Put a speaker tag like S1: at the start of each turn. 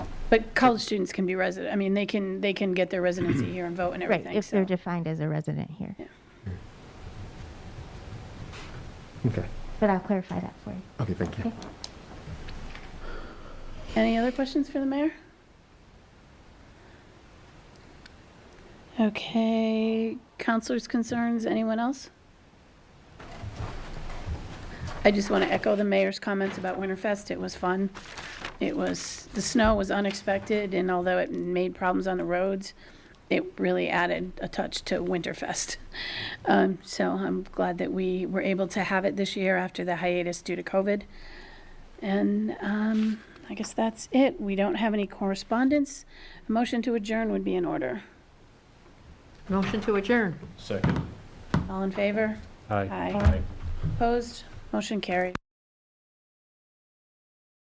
S1: But college students can be resident, I mean, they can, they can get their residency here and vote and
S2: Right,
S1: everything,
S2: if they're
S1: so.
S2: defined as a resident here.
S1: Yeah.
S3: Okay,
S2: But I'll clarify that for you.
S3: okay, thank you.
S2: Okay.
S1: Any other questions for the mayor? Okay, counselors' concerns, anyone else? I just want to echo the mayor's comments about Winterfest. It was fun. It was, the snow was unexpected, and although it made problems on the roads, it really added a touch to Winterfest. Um, So I'm glad that we were able to have it this year after the hiatus due to COVID. And um, I guess that's it. We don't have any correspondence. A motion to adjourn would be in order.
S4: Motion to adjourn.
S5: Second.
S1: All in favor?
S5: Aye.
S1: Aye. Opposed? Motion carried.